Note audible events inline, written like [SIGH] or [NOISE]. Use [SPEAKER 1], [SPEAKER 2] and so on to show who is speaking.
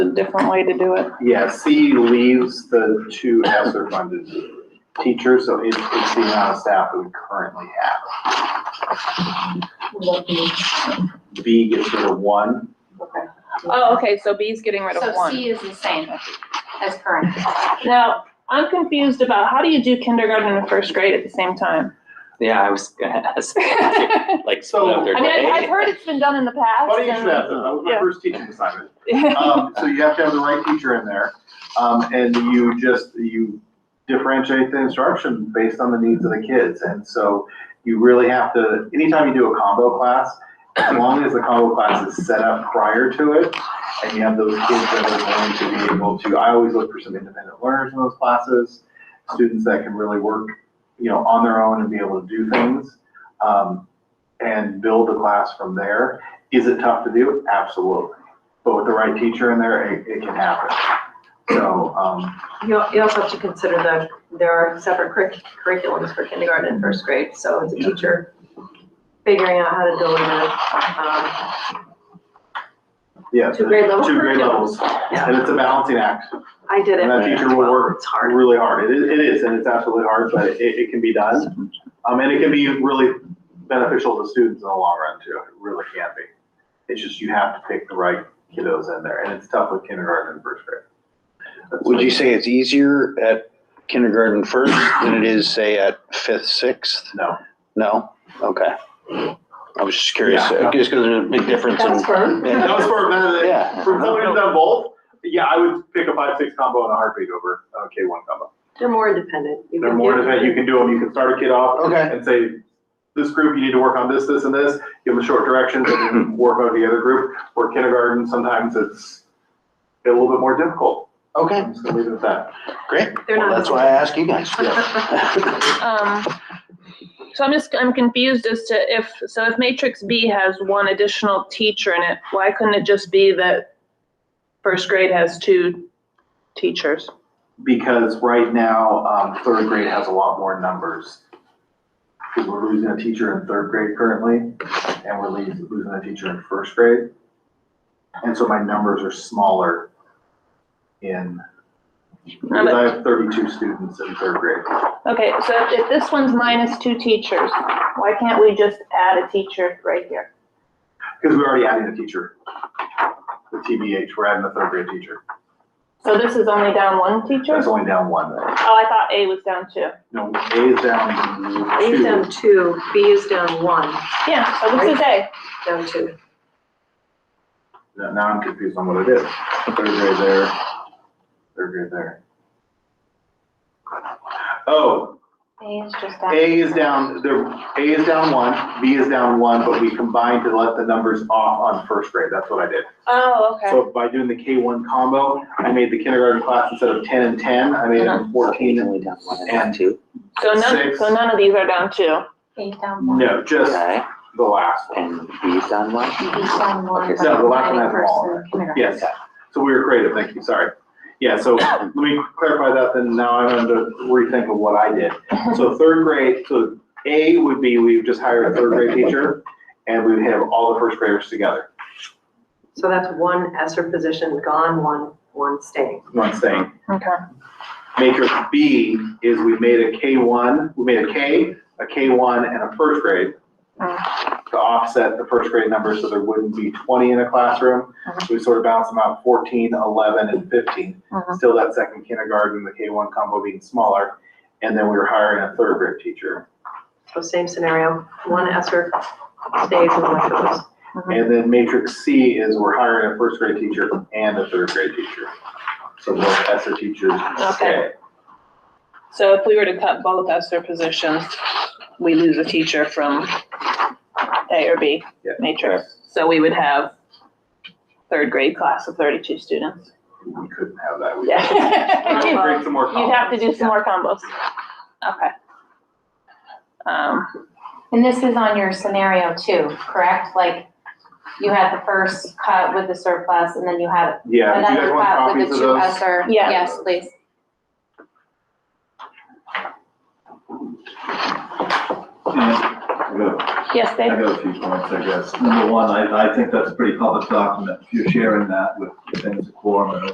[SPEAKER 1] a different way to do it.
[SPEAKER 2] Yeah, C leaves the two ESER funded teachers, so it's, it's the amount of staff that we currently have.
[SPEAKER 3] Oh,
[SPEAKER 2] B gets rid of one,
[SPEAKER 1] Oh, okay, so B's getting rid of
[SPEAKER 3] So
[SPEAKER 1] one.
[SPEAKER 3] C is the same as current.
[SPEAKER 1] Now, I'm confused about how do you do kindergarten and first grade at the same time?
[SPEAKER 4] Yeah, I was gonna [LAUGHS] ask.
[SPEAKER 1] [LAUGHS] I
[SPEAKER 4] Like, split up their
[SPEAKER 1] mean, I- I've
[SPEAKER 4] day.
[SPEAKER 1] heard it's been done in the past.
[SPEAKER 2] funny you should ask that, that was my
[SPEAKER 1] Yeah.
[SPEAKER 2] first teaching assignment.
[SPEAKER 1] and-
[SPEAKER 2] Um, so you have to have the right teacher in there, um, and you just, you differentiate the instruction based on the needs of the kids. And so you really have to, anytime you do a combo class, as long as the combo class is set up prior to it, and you have those kids that are going to be able to, I always look for some independent learners in those classes, students that can really work, you know, on their own and be able to do things, um, and build the class from there. Is it tough to do? Absolutely but with the right teacher in there, it, it can happen. So, um,
[SPEAKER 5] You al- you also have to consider that there are separate curric- curriculums for kindergarten and first grade, so as a teacher, figuring out how to um, deal with
[SPEAKER 2] yeah,
[SPEAKER 5] um, two grade level
[SPEAKER 2] two grade
[SPEAKER 5] curriculum.
[SPEAKER 2] levels, and it's a balancing act,
[SPEAKER 5] I did it.
[SPEAKER 2] And that teacher will
[SPEAKER 5] well,
[SPEAKER 2] work
[SPEAKER 5] It's hard.
[SPEAKER 2] really hard, it is, it is, and it's absolutely hard, but it, it can be done. Um, and it can be really beneficial to students in the long run too, it really can be. It's just you have to pick the right kiddos in there, and it's tough with kindergarten and first grade. That's
[SPEAKER 6] Would
[SPEAKER 2] what-
[SPEAKER 6] you say it's easier at kindergarten first than it is, say, at fifth, sixth?
[SPEAKER 2] No,
[SPEAKER 6] No? Okay. I was just curious,
[SPEAKER 2] Yeah.
[SPEAKER 6] just because there's a big difference in.
[SPEAKER 2] that was for,
[SPEAKER 6] Yeah.
[SPEAKER 2] for somebody who's done both, yeah, I would pick a five, six combo and a heartbeat over a K one combo.
[SPEAKER 5] They're more independent. You
[SPEAKER 2] They're
[SPEAKER 5] can
[SPEAKER 2] more
[SPEAKER 5] do-
[SPEAKER 2] than, you can do them, you can start a kid off
[SPEAKER 6] Okay.
[SPEAKER 2] and say, this group, you need to work on this, this, and this, give them short directions, and then work on the other group. Or kindergarten, sometimes it's a little bit more difficult.
[SPEAKER 6] Okay,
[SPEAKER 2] I'm just gonna leave it at that.
[SPEAKER 6] great.
[SPEAKER 5] They're
[SPEAKER 6] Well,
[SPEAKER 5] not-
[SPEAKER 6] that's why I asked you
[SPEAKER 5] [LAUGHS]
[SPEAKER 6] guys. [LAUGHS]
[SPEAKER 1] [LAUGHS] Um, so I'm just, I'm confused as to if, so if matrix B has one additional teacher in it, why couldn't it just be that first grade has two teachers?
[SPEAKER 2] Because right now, um, third grade has a lot more numbers. Because we're losing a teacher in third grade currently, and we're losing, losing a teacher in first grade. And so my numbers are smaller in, because I have thirty-two students in third grade.
[SPEAKER 1] Okay, so if this one's minus two teachers, why can't we just add a teacher right here?
[SPEAKER 2] Because we already added a teacher. The TBH, we're adding a third grade teacher.
[SPEAKER 1] So this is only down one teacher?
[SPEAKER 2] That's only down one.
[SPEAKER 1] Oh, I thought A was down two.
[SPEAKER 2] No, A is down
[SPEAKER 5] A is down
[SPEAKER 2] two.
[SPEAKER 5] two, B is down one,
[SPEAKER 1] Yeah, so this is A.
[SPEAKER 5] down two.
[SPEAKER 2] Now now I'm confused on what it is. Third grade there, third grade there. Oh,
[SPEAKER 1] A is just
[SPEAKER 2] A is down, there, A is down one, B is down one, but we combined to let the numbers off on first grade. That's what I did.
[SPEAKER 1] Oh, okay.
[SPEAKER 2] So by doing the K one combo, I made the kindergarten class instead of ten and ten, I made them fourteen and
[SPEAKER 4] Only down one and two.
[SPEAKER 1] So none,
[SPEAKER 2] six.
[SPEAKER 1] so none of these are down two.
[SPEAKER 3] Eight down one.
[SPEAKER 2] No, just
[SPEAKER 4] Okay,
[SPEAKER 2] the last one.
[SPEAKER 4] and B's down one?
[SPEAKER 3] Eight down one.
[SPEAKER 2] Okay, no, the last one has them all.
[SPEAKER 3] First and kindergarten.
[SPEAKER 2] Yes, so we were creative, thank you, sorry. Yeah, so let me clarify that, then now I'm going to rethink of what I did. So third grade, so A would be, we've just hired a third grade teacher, and we would have all the first graders together,
[SPEAKER 5] So that's one ESER position gone, one, one staying.
[SPEAKER 2] one thing.
[SPEAKER 1] Okay.
[SPEAKER 2] Matrix B is we made a K one, we made a K, a K one and a first grade to offset the first grade numbers, so there wouldn't be twenty in a classroom. We sort of balanced them out 14, 11, and fifteen.
[SPEAKER 1] Mhm.
[SPEAKER 2] still that second kindergarten, the K one combo being smaller, and then we were hiring a third grade teacher.
[SPEAKER 5] So same scenario, one ESER stays and one goes.
[SPEAKER 2] And then matrix C is we're hiring a first grade teacher and a third grade teacher. So both ESER teachers stay.
[SPEAKER 1] So if we were to cut both ESER positions, we lose a teacher from A or B
[SPEAKER 2] Yeah.
[SPEAKER 1] matrix. So we would have third grade class of thirty-two students.
[SPEAKER 2] We couldn't have that. We-
[SPEAKER 1] [LAUGHS]
[SPEAKER 2] We'd
[SPEAKER 1] Yeah.
[SPEAKER 2] create some more
[SPEAKER 1] You'd have to do some
[SPEAKER 2] combos.
[SPEAKER 1] more combos. Okay. Um,
[SPEAKER 3] And this is on your scenario too, correct? Like, you had the first cut with the surplus, and then you had
[SPEAKER 2] Yeah, do you guys
[SPEAKER 3] another
[SPEAKER 2] want
[SPEAKER 3] cut with
[SPEAKER 2] copies
[SPEAKER 3] the
[SPEAKER 2] of
[SPEAKER 3] two
[SPEAKER 2] those?
[SPEAKER 3] ESER.
[SPEAKER 1] Yeah.
[SPEAKER 3] Yes, please.
[SPEAKER 7] Good.
[SPEAKER 1] Yes,
[SPEAKER 7] I
[SPEAKER 1] Dave?
[SPEAKER 7] got a few points, I guess. Number one, I, I think that's a pretty public document. If you're sharing that with things, quorum and